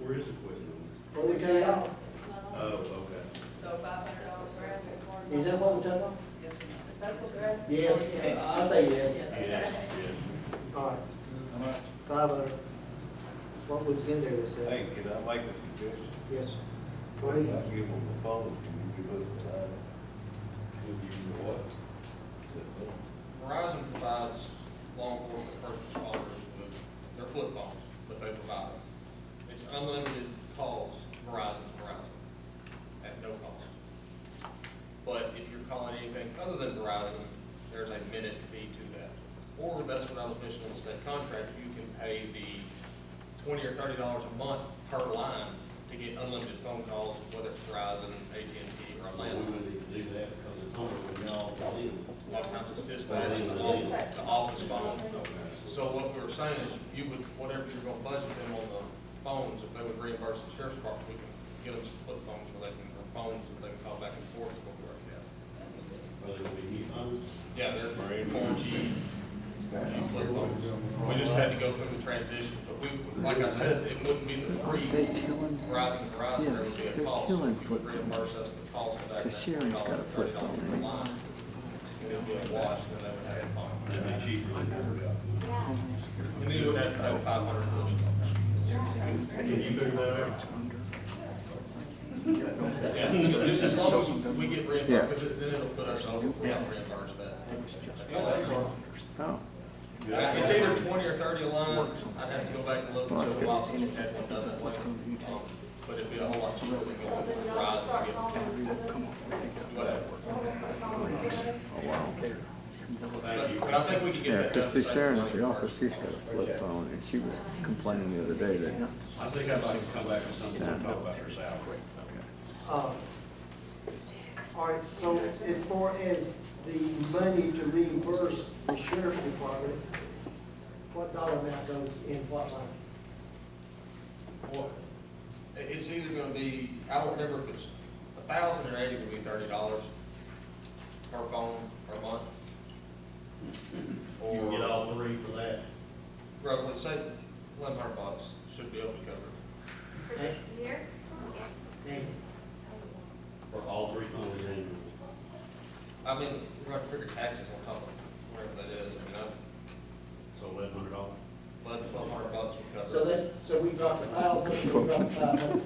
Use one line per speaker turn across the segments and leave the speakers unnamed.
is the question on
What we take off?
that? Oh, okay.
So five hundred dollars for asking for.
Is that what we took off?
Yes, ma'am.
That's what they're asking.
Yes, I say yes.
Yes, yes.
All right, five hundred. That's what was in there that said.
Hey, can I make a suggestion?
Yes. sir. Go
Well,
ahead.
I give them a phone, can you give us the line?
We'll give you the what?
Verizon provides law enforcement first responders with their flip phones, but they provide them. It's unlimited calls, Verizon, to Verizon, at no cost. But if you're calling anything other than Verizon, there's a minute fee to that. Or that's what I was mentioning in the state contract, you can pay the twenty or thirty dollars a month per line to get unlimited phone calls, whether it's Verizon, AT&T, or
Well,
a
we
landline.
wouldn't need to do that because it's only when y'all call in.
A lot of times it's dispatch, the office, the office phone. So what we were saying is, you would, whatever you're gonna budget them on the phones, if they would reimburse the sheriff's department, we can give them some flip phones where they can, or phones that they can call back and forth, is what we already have.
Whether it be heat pumps.
Yeah, they're four G, G flip phones. We just had to go through the transition, but we, like I said, it wouldn't be the free Verizon, Verizon, there would be a cost.
killing
You would
flip
reimburse us the cost of that.
The Sharon's got a
$30
flip
per
phone.
line. And it would be a wash, then they would have a phone.
That'd be cheaper than that.
And then you would have to pay five hundred for
Can you figure that out?
it. Just as long as we get
Yeah.
reimbursed, 'cause then it'll put us over, we don't reimburse that.
Oh,
It's either twenty or thirty a line, I'd have to go back and look, and see the losses we had one done that way. Um, But it'd be a whole lot cheaper than going with Verizon to get whatever.
Thank you.
But but I think we can get
yeah,
that done.
because see
same
Sharon
way.
at the office, she's got a flip phone, and she was complaining the other day that
I think I'd like to come back with something to talk about for salary.
Uh, All right, so as far as the money to reimburse the sheriff's department, what dollar amount goes in what line?
Well, it- it's either gonna be, I don't remember if it's a thousand or eighty would be thirty dollars per phone per month.
You get
Or
all three for that.
roughly, say, eleven hundred bucks should be able to cover. it.
Hey, hey,
For all three phones annually.
I mean, we're gonna figure taxes on top of whatever that is, I mean, I,
So eleven hundred dollars.
eleven, twelve hundred bucks would cover.
So
it.
that, so we dropped a thousand, we dropped five hundred.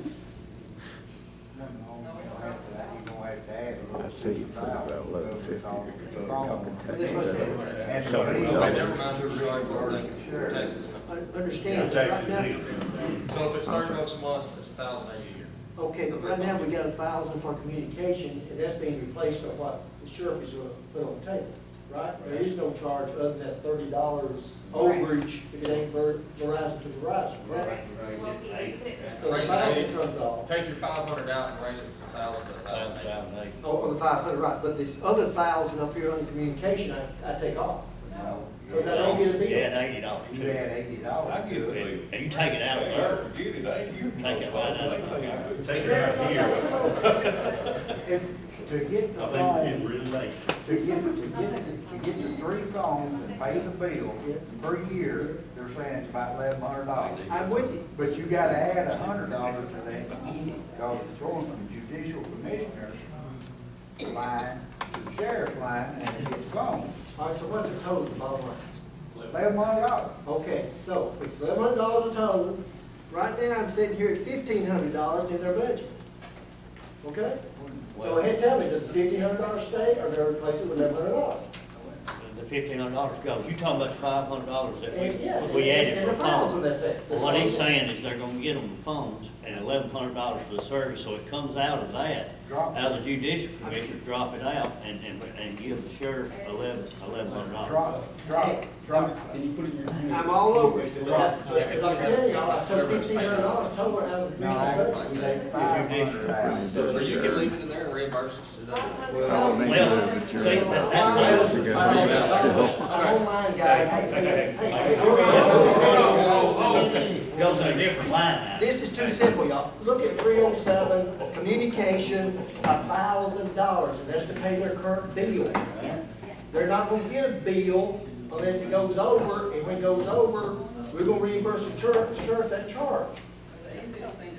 I see you put about eleven fifty, you're talking
That's what I said.
taxes.
Okay, never mind, we're sorry, we're already covering taxes.
Un-
Yeah,
Understand, right
taxes
now,
in.
So if it's thirty bucks a month, it's a thousand eighty a year.
okay, but right now we got a thousand for communication, and that's being replaced by what the sheriff is gonna put on the table, right? There is no charge other than that thirty dollars overage if it ain't Ver- Verizon to Verizon, right? So the thousand comes off,
Take your five hundred out and raise it from a thousand to a thousand eighty.
oh, on the five hundred, right, but this other thousand up here on communication, I, I take off. So that don't get a bill.
Yeah, eighty dollars
You
too.
had eighty dollars.
I give it. If you take it out of there,
Get it, ain't you?
Take it right out.
Take it out here.
If, to get the
I think we're
phone,
getting really late.
to get, to get, to get the three phones and pay the bill per year, they're saying it's about eleven hundred dollars.
I'm with you.
But you gotta add a hundred dollars to that, because it's going from judicial commissioner's line to sheriff's line, and it gets phone,
All right, so what's the total, bottom line?
eleven hundred dollars.
Okay, so it's eleven hundred dollars a total. Right now, I'm sitting here at fifteen hundred dollars in their budget. Okay? So ahead, tell me, does fifteen hundred dollars stay or do they replace it with eleven hundred dollars?
the fifteen hundred dollars goes. You talking about five hundred dollars that
And, yeah.
we, we added
and
for
the
a
files
phone.
when they say-
Well, What he's saying is they're gonna get them the phones and eleven hundred dollars for the service, so it comes out of that.
Drop.
Out of the judicial commission, drop it out and, and, and give the sheriff eleven, eleven hundred dollars.
Drop, drop, drop.
I'm all over it. But
Right.
I- But I'm telling y'all, I took fifteen hundred dollars total out of the
No,
commission's budget.
I, we take five hundred out.
Or you can leave it in there and reimburse us, it doesn't.
Well, see, that,
Mine was
that's.
the $500. I don't mind, guys. Hey, hey, hey, hey, hold on,
Oh,
hold on, hold on, guys.
Goes to a different line now.
This is too simple, y'all. Look at three oh seven, communication, a thousand dollars, and that's to pay their current bill. They're not gonna get a bill unless it goes over, and when it goes over, we're gonna reimburse the church, church that charge.
The easiest thing